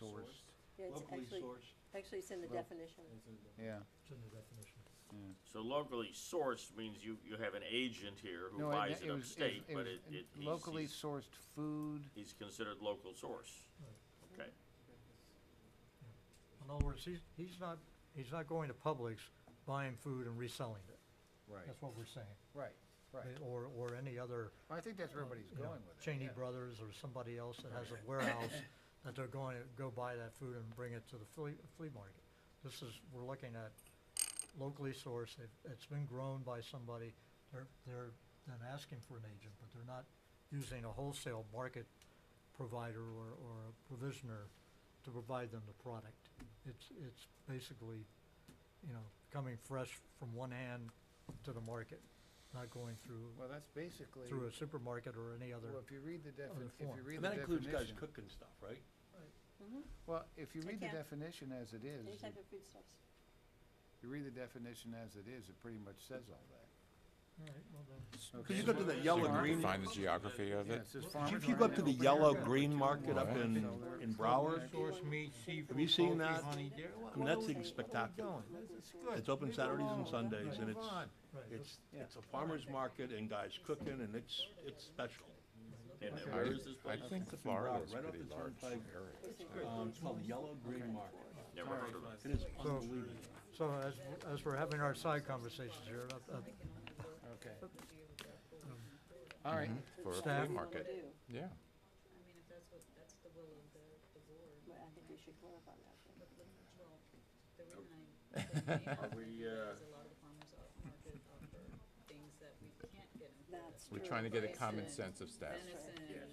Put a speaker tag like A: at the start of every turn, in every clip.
A: sourced,
B: Yeah, it's
A: locally
B: actually,
A: sourced.
B: actually it's in the
A: Well,
B: definition.
C: yeah,
D: It's in the definition.
C: yeah.
E: So locally sourced means you, you have an agent here who
C: No, it-
E: buys it
C: was-
E: upstate,
C: was
E: but it,
C: in-
E: it, he's-
C: Locally
E: he's,
C: sourced food,
E: he's considered local source. Okay,
D: In other words, he's, he's not, he's not going to Publix buying food and reselling it.
C: right,
D: That's what we're saying.
C: right, right.
D: Or, or any other.
C: I think that's where
D: uh,
C: everybody's
D: you know,
C: going with it.
D: Cheney
C: yeah.
D: Brothers or somebody else that has a warehouse, that they're going to go buy that food and bring it to the flea, flea market. This is, we're looking at locally sourced, it, it's been grown by somebody, they're, they're then asking for an agent, but they're not using a wholesale market provider or, or a provisioner to provide them the product. It's, it's basically, you know, coming fresh from one hand to the market, not going through
C: Well, that's basically,
D: through
C: well,
D: a supermarket or any other.
C: if you read the
D: other
C: definition, if
D: form.
C: you read
A: And
C: the
A: that includes guys
C: definition,
A: cooking stuff, right?
B: Mhm.
C: well, if you
B: I
C: read the
B: can't.
C: definition as it
B: Any
C: is,
B: type
C: it-
B: of foodstuffs.
C: you read the definition as it is, it pretty much says all that.
A: Could
C: Okay.
A: you go to the yellow
C: Farm-
A: green-
F: Define the geography of
C: Yeah,
F: it.
C: it says
D: If
C: farmers
A: If you go up to
C: market,
A: the
C: open
A: yellow
C: area,
A: green market up
C: opportunity
A: in,
C: to sell their Broward,
A: in Broward,
B: Source meat,
A: have you seen that?
B: I
A: mean, that's spectacular. It's open Saturdays and Sundays and it's, it's,
C: Yeah.
A: it's a farmer's market and guys cooking and it's, it's special.
E: and
C: Okay.
E: where is this
F: I
E: place?
F: think
A: It's in
F: Florida
A: Broward,
F: is
A: right off
F: pretty
A: the
F: large
A: turnpike.
F: area.
A: Um, it's called Yellow Green Market.
E: Never
C: All right.
E: heard of it.
A: It is unbelievable.
D: So as, w- as we're having our side conversations here, uh, uh,
C: okay.
D: Um,
C: All right,
F: For a
D: Staff.
F: flea market, yeah.
G: I mean, if that's what, that's the will of the, the board,
B: But I think we should clarify that.
G: but, but, well, the reason I, the main
E: Are
G: reason
E: we,
G: for that
E: uh,
G: is a lot of the farmers off market offer things that we can't get in Florida.
B: That's
F: We're
B: true.
F: trying to get a common
G: Venison.
F: sense of staff.
G: Venison,
E: Yes.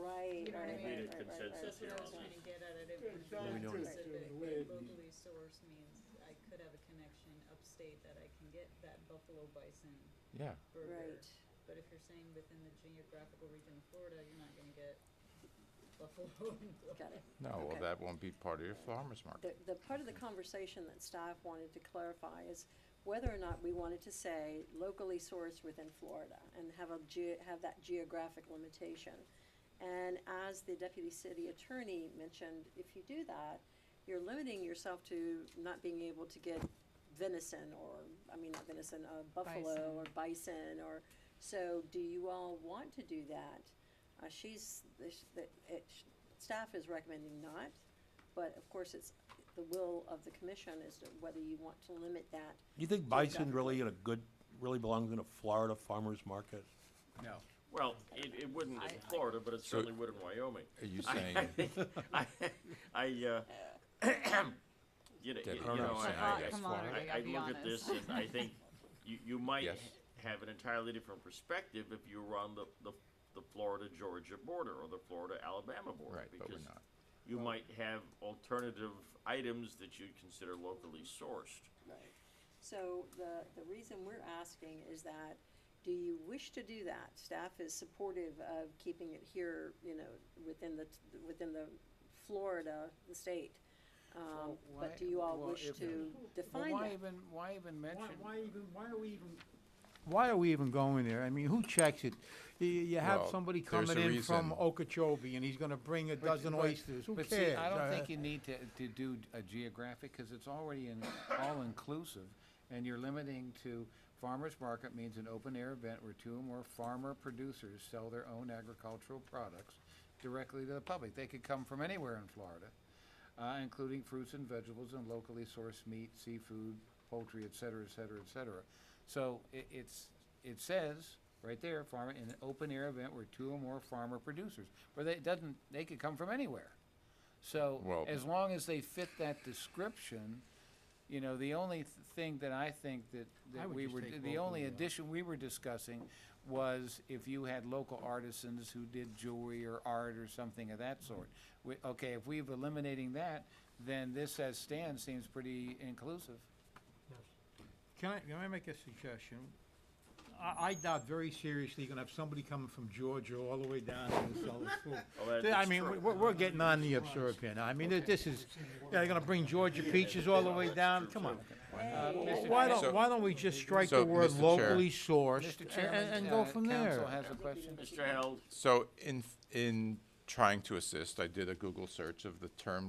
B: Right, right, right, right,
G: You know what I mean?
E: Made a
B: right, right,
E: consensus
G: that's what I was
E: Yeah.
G: trying to get at, I didn't want to
B: Yeah,
G: be
B: we know
G: too
B: it.
G: specific, but locally sourced means I could have a connection upstate that I can get that buffalo bison
F: Yeah,
G: burger.
B: Right,
G: But if you're saying within the geographical region of Florida, you're not gonna get buffalo and
B: got it.
F: no, well,
B: Okay.
F: that won't be part of your farmer's
B: The,
F: market.
B: the part of the conversation that staff wanted to clarify is whether or not we wanted to say locally sourced within Florida and have a ge- have that geographic limitation. And as the deputy city attorney mentioned, if you do that, you're limiting yourself to not being able to get venison or, I mean, not venison, uh, buffalo or bison or, so do you all want to do that? Uh, she's, this, the, it, staff is recommending not, but of course it's, the will of the commission as to whether you want to limit that.
A: You think bison really in a good, really belongs in a Florida farmer's market?
C: no,
E: Well, it, it wouldn't in Florida, but it
F: So-
E: certainly would in Wyoming.
F: Are you
E: I-
F: saying,
E: I, I, uh, you know,
F: Debbie,
E: you know,
F: you're not
E: I,
F: saying
E: I,
F: yes,
G: Come on,
F: Florida?
E: I, I
G: be
E: look at this and I think you, you might
F: Yes.
E: have an entirely different perspective if you were on the, the, the Florida Georgia border or the Florida Alabama border.
F: Right, but we're
E: because
F: not.
E: You might have alternative items that you'd consider locally sourced.
B: Right. So the, the reason we're asking is that, do you wish to do that? Staff is supportive of keeping it here, you know, within the, within the Florida, the state. Um,
C: Well, why-
B: but do you all
C: well,
B: wish
C: if-
B: to
C: well,
B: define
C: why
B: that?
C: even, why even mention?
H: even, why are we even? Why are we even going there? I mean, who checks it? You, you have
F: Well,
H: somebody
F: there's
H: coming
F: a
H: in from
F: reason.
H: Okeechobee and he's gonna bring a
C: But-
H: dozen
C: but-
H: oysters, who
C: but see,
H: cares?
C: I don't
H: Uh,
C: think you need to, to do a geographic, because it's already in, all-inclusive, and you're limiting to, farmer's market means an open-air event where two or more farmer producers sell their own agricultural products directly to the public. They could come from anywhere in Florida, uh, including fruits and vegetables and locally sourced meat, seafood, poultry, et cetera, et cetera, et cetera. So i it's, it says, right there, farmer, in an open-air event where two or more farmer producers, where they, it doesn't, they could come from anywhere. So,
F: Well-
C: as long as they fit that description, you know, the only th- thing that I think that,
H: I
C: that
H: would
C: we
H: just
C: were,
H: take
C: the
H: both of
C: only
H: them out.
C: addition we were discussing was if you had local artisans who did jewelry or art or something of that sort. We, okay, if we've eliminating that, then this as stands seems pretty inclusive.
H: Can I, can I make a suggestion? I, I doubt very seriously you're gonna have somebody coming from Georgia all the way down to sell this food.
E: Although
H: I
E: that's
H: mean,
E: Oh, true.
H: we- we're, we're getting on the absurd here now. I mean, th- this is, they're gonna bring Georgia peaches all the way down, come on.
C: Uh, Mr.
H: Why
C: Chair-
H: don't,
F: So-
H: why don't we just strike the
F: So,
H: word
F: Mr. Chair-
H: locally sourced
C: Mr.
H: a- a-
C: Chairman,
H: and, go
C: uh,
H: from there?
C: Council has a question?
E: Mr. Held,
F: So in, in trying to assist, I did a Google search of the term